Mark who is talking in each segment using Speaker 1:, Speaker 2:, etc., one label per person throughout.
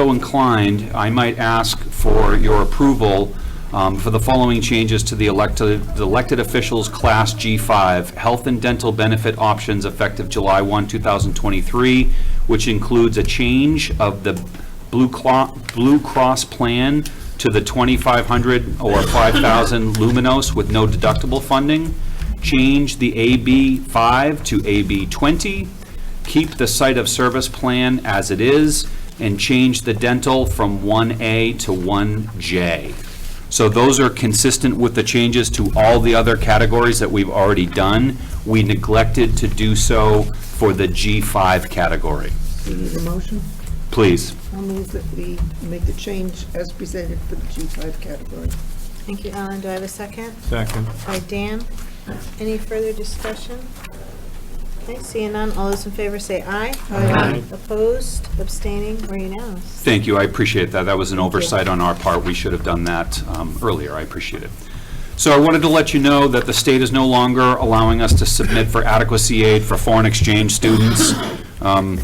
Speaker 1: so inclined, I might ask for your approval um, for the following changes to the elected, the elected officials Class G5, health and dental benefit options effective July 1, 2023, which includes a change of the Blue Clo- Blue Cross plan to the 2,500 or 5,000 luminos with no deductible funding, change the AB5 to AB20, keep the site of service plan as it is, and change the dental from 1A to 1J. So those are consistent with the changes to all the other categories that we've already done. We neglected to do so for the G5 category.
Speaker 2: Do you need a motion?
Speaker 1: Please.
Speaker 2: I'll move that we make the change as presented for the G5 category.
Speaker 3: Thank you, Ellen. Do I have a second?
Speaker 4: Second.
Speaker 3: By Dan. Any further discussion? Okay, seeing none, all those in favor say aye.
Speaker 2: Aye.
Speaker 3: Opposed, abstaining, or unanimous?
Speaker 1: Thank you, I appreciate that. That was an oversight on our part. We should have done that um, earlier, I appreciate it. So I wanted to let you know that the state is no longer allowing us to submit for adequacy aid for foreign exchange students. Um,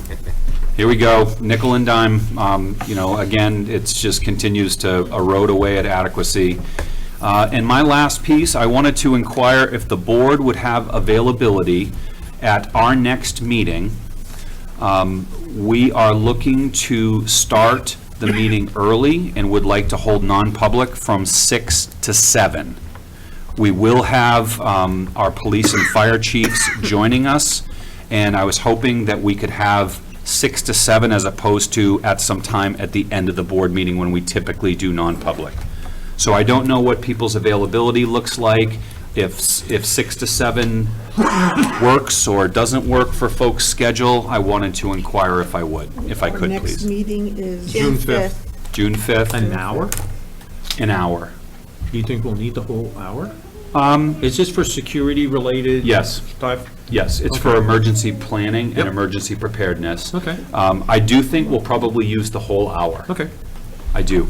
Speaker 1: Here we go, nickel and dime. Um, You know, again, it's just continues to erode away at adequacy. Uh, And my last piece, I wanted to inquire if the board would have availability at our next meeting. Um, We are looking to start the meeting early and would like to hold non-public from six to seven. We will have um, our police and fire chiefs joining us, and I was hoping that we could have six to seven as opposed to at some time at the end of the board meeting when we typically do non-public. So I don't know what people's availability looks like, if, if six to seven works or doesn't work for folks' schedule. I wanted to inquire if I would, if I
Speaker 2: Our
Speaker 1: could,
Speaker 2: next
Speaker 1: please.
Speaker 2: meeting is,
Speaker 4: June
Speaker 1: June 5th,
Speaker 4: An hour?
Speaker 1: an hour.
Speaker 4: Do you think we'll need the whole hour? Um. Is this for security-related?
Speaker 1: Yes.
Speaker 4: Stuff?
Speaker 1: Yes, it's for
Speaker 4: Okay.
Speaker 1: emergency planning and
Speaker 4: Yep.
Speaker 1: emergency preparedness.
Speaker 4: Okay.
Speaker 1: Um, I do think we'll probably use the whole hour.
Speaker 4: Okay.
Speaker 1: I do.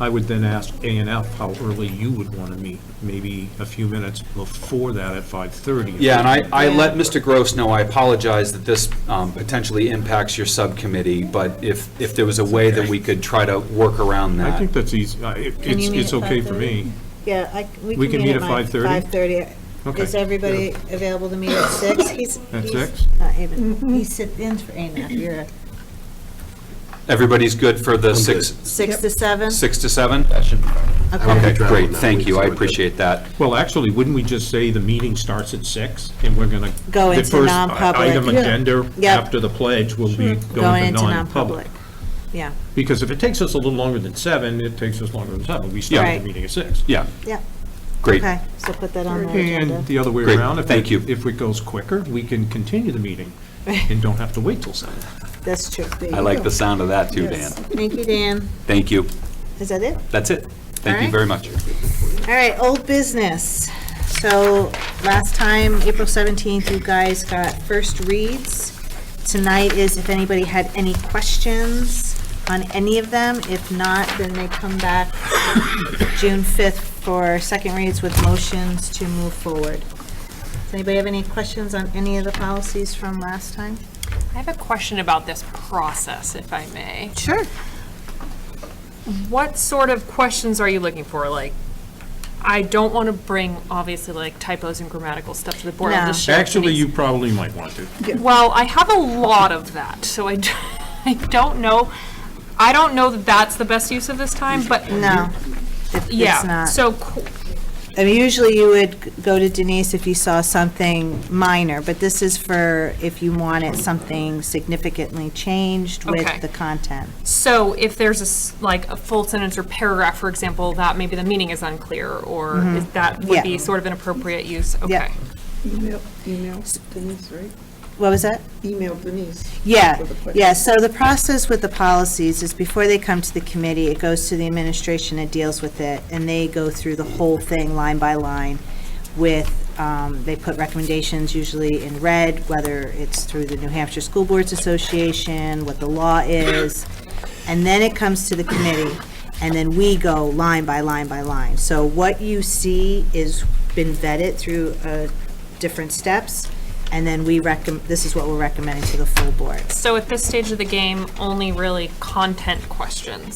Speaker 4: I would then ask A and F how early you would want to meet, maybe a few minutes before that at 5:30.
Speaker 1: Yeah, and I, I let Mr. Gross know, I apologize that this um, potentially impacts your subcommittee, but if, if there was a way that we could try to work around
Speaker 4: I
Speaker 1: that.
Speaker 4: think that's easy, I- it-
Speaker 3: Can you
Speaker 4: it's,
Speaker 3: meet
Speaker 4: it's
Speaker 3: at
Speaker 4: okay for me.
Speaker 3: Yeah, I, we can meet at 5:30. 5:30.
Speaker 4: Okay.
Speaker 3: Is everybody available to meet at six? He's
Speaker 4: At
Speaker 3: he's-
Speaker 4: six?
Speaker 3: Uh, Amen. He sit in for Amen. You're a
Speaker 1: Everybody's good for the six,
Speaker 3: six to seven?
Speaker 1: six to seven? Okay, great, thank you, I appreciate that.
Speaker 4: Well, actually, wouldn't we just say the meeting starts at six and we're going to?
Speaker 3: Go into non-public.
Speaker 4: Item
Speaker 2: Yeah.
Speaker 4: agenda
Speaker 3: Yep.
Speaker 4: after the pledge will be
Speaker 3: Going into
Speaker 4: non-public.
Speaker 3: non-public. Yeah,
Speaker 4: Because if it takes us a little longer than seven, it takes us longer than seven. We
Speaker 3: Yeah.
Speaker 4: start
Speaker 3: Right.
Speaker 4: the meeting at six.
Speaker 1: Yeah,
Speaker 3: yeah,
Speaker 1: great.
Speaker 3: okay, so put that on the agenda.
Speaker 4: And the other way
Speaker 1: Great,
Speaker 4: around. if
Speaker 1: thank
Speaker 4: it-
Speaker 1: you.
Speaker 4: If it goes quicker, we can continue the meeting and don't have to wait till seven.
Speaker 3: That's true.
Speaker 1: I like the sound of that too, Dan.
Speaker 2: Yes.
Speaker 3: Thank you, Dan.
Speaker 1: Thank you.
Speaker 3: Is that it?
Speaker 1: That's it. Thank you
Speaker 3: Alright.
Speaker 1: very much.
Speaker 3: All right, old business. So last time, April 17th, you guys got first reads. Tonight is if anybody had any questions on any of them. If not, then they come back June 5th for second reads with motions to move forward. Does anybody have any questions on any of the policies from last time?
Speaker 5: I have a question about this process, if I may.
Speaker 3: Sure.
Speaker 5: What sort of questions are you looking for? Like, I don't want to bring, obviously, like typos and grammatical stuff to the board. I'll
Speaker 3: No.
Speaker 5: just share
Speaker 4: Actually,
Speaker 5: committees.
Speaker 4: you probably might want to.
Speaker 5: Well, I have a lot of that, so I, d- I don't know. I don't know that that's the best use of this time, but.
Speaker 3: No, it- it's
Speaker 5: Yeah,
Speaker 3: not.
Speaker 5: so qu-
Speaker 3: I mean, usually you would go to Denise if you saw something minor, but this is for if you wanted something significantly changed
Speaker 5: Okay.
Speaker 3: with the content.
Speaker 5: So if there's a, s- like, a full sentence or paragraph, for example, that maybe the meaning is unclear, or is that
Speaker 3: Mm-hmm. Yeah.
Speaker 5: would be sort of an appropriate use?
Speaker 3: Yeah.
Speaker 5: Okay.
Speaker 2: email, email Denise, right?
Speaker 3: What was that?
Speaker 2: Email Denise.
Speaker 3: Yeah,
Speaker 2: for the question.
Speaker 3: yeah, so the process with the policies is before they come to the committee, it goes to the administration and deals with it, and they go through the whole thing line by line with, um, they put recommendations usually in red, whether it's through the New Hampshire School Boards Association, what the law is, and then it comes to the committee, and then we go line by line by line. So what you see is been vetted through a different uh, steps, And then we recommend, this is what we're recommending to the full board.
Speaker 5: So at this stage of the game, only really content questions.